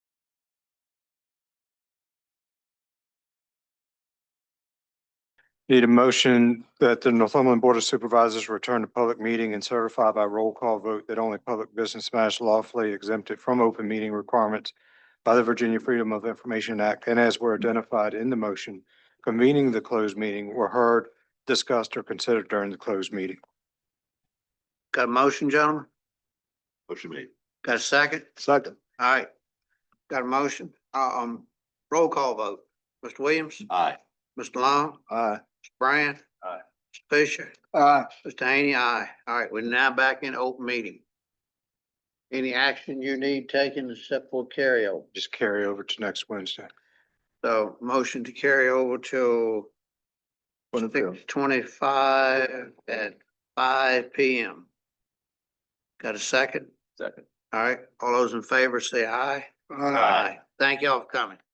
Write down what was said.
Need a motion that the Northumberland Board of Supervisors return to public meeting and certify by roll call vote that only public business matters lawfully exempted from open meeting requirements by the Virginia Freedom of Information Act and as were identified in the motion convening the closed meeting were heard, discussed, or considered during the closed meeting. Got a motion, gentlemen? Motion made. Got a second? Second. All right. Got a motion? Uh, Um, roll call vote. Mr. Williams, Aye. Mr. Long, Aye. Mr. Brand. Aye. Mr. Fisher, Aye. Mr. Haney, aye. All right, we're now back in open meeting. Any action you need taken except for carryover? Just carry over to next Wednesday. So motion to carry over till six twenty-five at five P M. Got a second? Second. All right, all those in favor say aye. Thank y'all for coming.